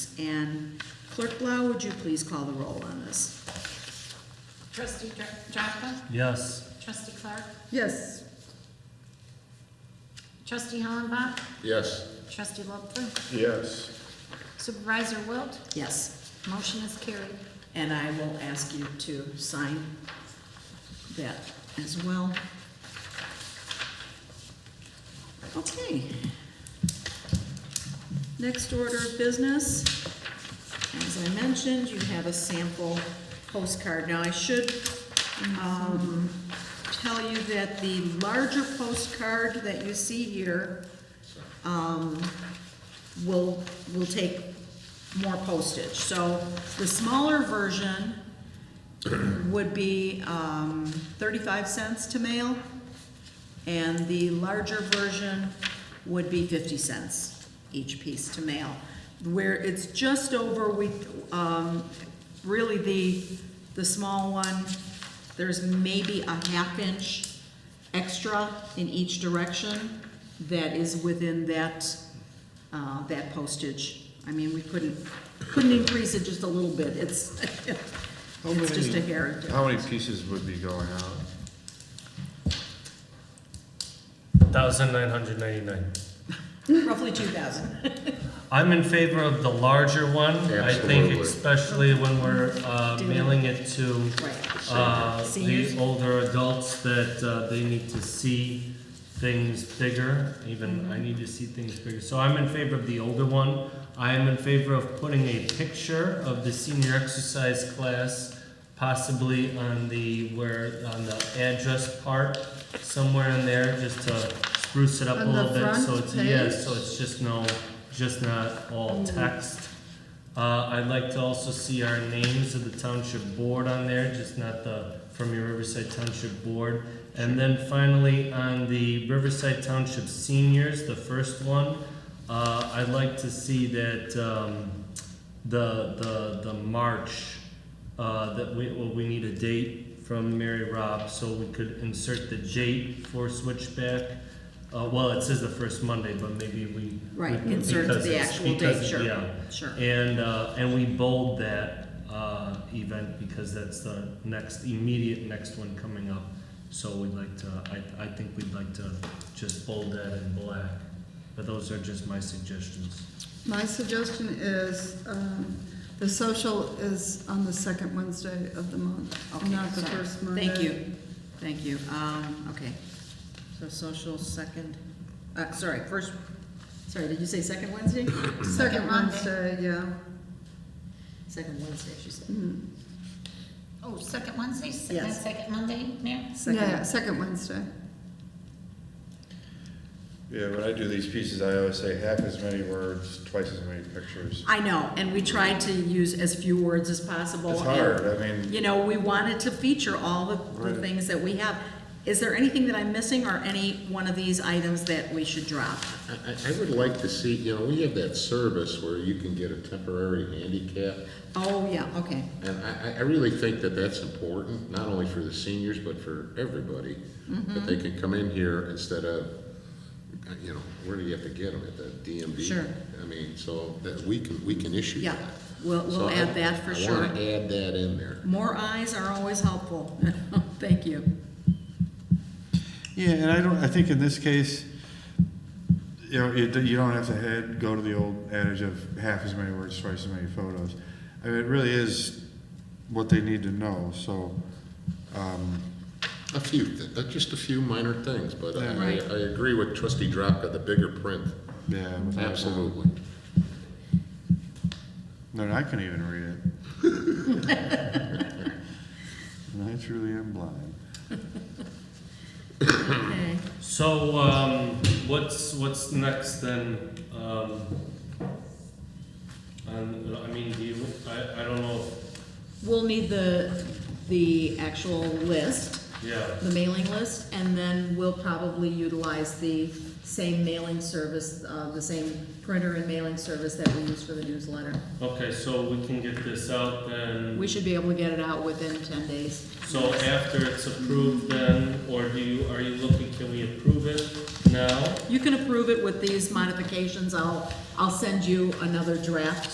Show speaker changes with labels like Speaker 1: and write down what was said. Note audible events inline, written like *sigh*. Speaker 1: And Clerk Blau, would you please call the roll on this?
Speaker 2: Trustee Dr- Drapka?
Speaker 3: Yes.
Speaker 2: Trustee Clark?
Speaker 1: Yes.
Speaker 2: Trustee Hollenbach?
Speaker 4: Yes.
Speaker 2: Trustee Lopfer?
Speaker 4: Yes.
Speaker 2: Supervisor Wilt?
Speaker 1: Yes,
Speaker 2: Motion is carried.
Speaker 1: and I will ask you to sign that as well. Okay. Next order of business, as I mentioned, you have a sample postcard. Now, I should, um, tell you that the larger postcard that you see here, um, will, will take more postage. So the smaller version would be, um, thirty-five cents to mail, and the larger version would be fifty cents each piece to mail. Where it's just over, we, um, really the, the small one, there's maybe a half inch extra in each direction that is within that, uh, that postage. I mean, we couldn't, couldn't increase it just a little bit, it's, *laughs* it's just a hair.
Speaker 4: How many pieces would be going out?
Speaker 3: Thousand nine hundred ninety-nine.
Speaker 1: Roughly two thousand.
Speaker 3: I'm in favor of the larger one. I think
Speaker 4: Absolutely.
Speaker 3: especially when we're uh,
Speaker 1: Dealing-
Speaker 3: mailing it to
Speaker 1: Right.
Speaker 3: uh,
Speaker 1: Seniors.
Speaker 3: the older adults that uh, they need to see things bigger. Even
Speaker 5: Mm-hmm.
Speaker 3: I need to see things bigger. So I'm in favor of the older one. I am in favor of putting a picture of the senior exercise class, possibly on the where on the address part somewhere in there, just to spruce it up a
Speaker 5: On the
Speaker 3: little bit. So
Speaker 5: front
Speaker 3: it's yeah,
Speaker 5: page? Mm-hmm.
Speaker 3: so it's just no, just not all text. Uh, I'd like to also see our names of the township board on there, just not the, from your Riverside Township Board. And then finally, on the Riverside Township seniors, the first one, uh, I'd like to see that, um, the, the, the March, uh, that we, well, we need a date from Mary Robb, so we could insert the date for switchback. Uh, well, it says the first Monday, but maybe we.
Speaker 1: Right,
Speaker 3: we-
Speaker 1: insert
Speaker 3: because
Speaker 1: the
Speaker 3: it's-
Speaker 1: actual
Speaker 3: because-
Speaker 1: date, sure,
Speaker 3: Yeah,
Speaker 1: sure.
Speaker 3: and, uh, and we bold that, uh, event because that's the next, immediate next one coming up. So we'd like to, I, I think we'd like to just bold that in black, but those are just my suggestions.
Speaker 5: My suggestion is, um, the social is on the second Wednesday of the month,
Speaker 1: Okay,
Speaker 5: not the
Speaker 1: sorry.
Speaker 5: first Monday.
Speaker 1: Thank you, thank you, um, okay. So social second, uh, sorry, first, sorry, did you say second Wednesday?
Speaker 5: Second
Speaker 2: Monday.
Speaker 5: Wednesday, yeah.
Speaker 1: Second Wednesday, she said.
Speaker 5: Mhm.
Speaker 2: Oh, second Wednesday, second,
Speaker 1: Yes.
Speaker 2: second Monday, Mayor?
Speaker 5: Yeah,
Speaker 1: Second,
Speaker 5: second Wednesday.
Speaker 4: Yeah, when I do these pieces, I always say half as many words, twice as many pictures.
Speaker 1: I know, and we tried to use as few words as possible.
Speaker 4: It's
Speaker 1: and,
Speaker 4: hard, I mean,
Speaker 1: You know, we wanted to feature all the, the
Speaker 4: Right.
Speaker 1: things that we have. Is there anything that I'm missing or any one of these items that we should drop?
Speaker 6: I, I- I would like to see, you know, we have that service where you can get a temporary handicap,
Speaker 1: Oh, yeah, okay,
Speaker 6: and I, I- I really think that that's important, not only for the seniors, but for everybody,
Speaker 1: Mm-hmm.
Speaker 6: that they can come in here instead of, uh, you know, where do you have to get them, at the DMV?
Speaker 1: Sure.
Speaker 6: I mean, so that, we can, we can issue
Speaker 1: yeah,
Speaker 6: that.
Speaker 1: we'll,
Speaker 6: So
Speaker 1: we'll
Speaker 6: I-
Speaker 1: add that for
Speaker 6: I
Speaker 1: sure.
Speaker 6: wanna add that in there.
Speaker 1: More eyes are always helpful. *laughs* Thank you.
Speaker 7: Yeah, and I don't, I think in this case, you know, you, you don't have to head, go to the old adage of half as many words, twice as many photos. I mean, it really is what they need to know, so, um,
Speaker 6: A few, thi- uh, just a few minor things, but I, I
Speaker 1: Right.
Speaker 6: I agree with trustee Drapka, the bigger print,
Speaker 7: yeah. without that.
Speaker 6: absolutely.
Speaker 7: No, I can even read it. *laughs* And I truly am blind.
Speaker 1: Okay.
Speaker 3: So, um, what's, what's next then? Um, and, I mean, do you, I, I don't know, if-
Speaker 1: We'll need the, the actual list,
Speaker 3: yeah,
Speaker 1: the mailing list, and then we'll probably utilize the same mailing service, uh, the same printer and mailing service that we use for the newsletter.
Speaker 3: okay, so we can get this out then.
Speaker 1: We should be able to get it out within ten days.
Speaker 3: So after it's approved then, or do you, are you looking, can we approve it now?
Speaker 1: You can approve it with these modifications. I'll, I'll send you another draft